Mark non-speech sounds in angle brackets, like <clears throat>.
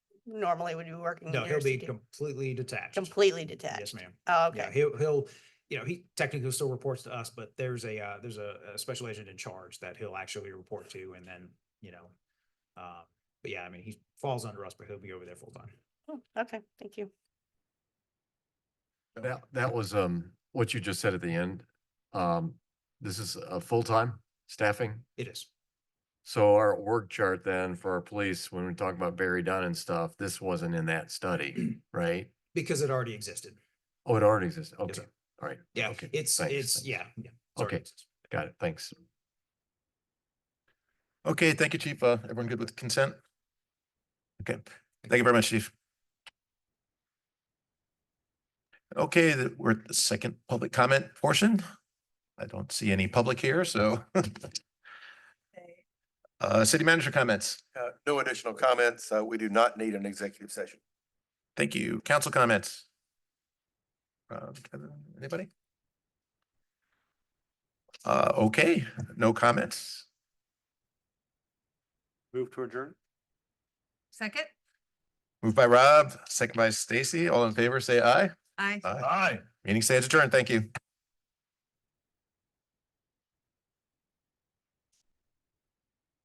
normally would be working No, he'll years be to get completely detached. completely detached. Yes, ma'am. Oh, Yeah, okay. he'll, he'll, you know, he technically still reports to us, but there's a, uh, there's a, a special agent in charge that he'll actually report to and then, you know. Uh, but yeah, I mean, he falls under us, but he'll be over there full time. Oh, Okay, thank you. That, that was, um, what you just said at the end. Um, this is a full-time staffing. It is. So our org chart then for our police, when we talk about Barry Dunn and stuff, this wasn't in that <clears throat> study, right? Because it already existed. Oh, it already exists. Yes, Okay, sir. all right. Yeah, Okay, it's, thanks, it's, thanks. yeah. yeah, it's already Okay. existed. Got it. Thanks. Okay, thank you, Chief. Uh, everyone good with consent? Okay, thank you very much, Chief. Okay, that we're at the second public comment portion. I don't see any public here, so. <laughs> Uh, city manager comments. Uh, no additional comments. Uh, we do not need an executive session. Thank you. Council comments. Uh, anybody? Uh, okay, no comments. Move to adjourn? Second? Moved by Rob, second by Stacy. All in favor, say aye. Aye. Aye. Meeting stands adjourned. Thank you.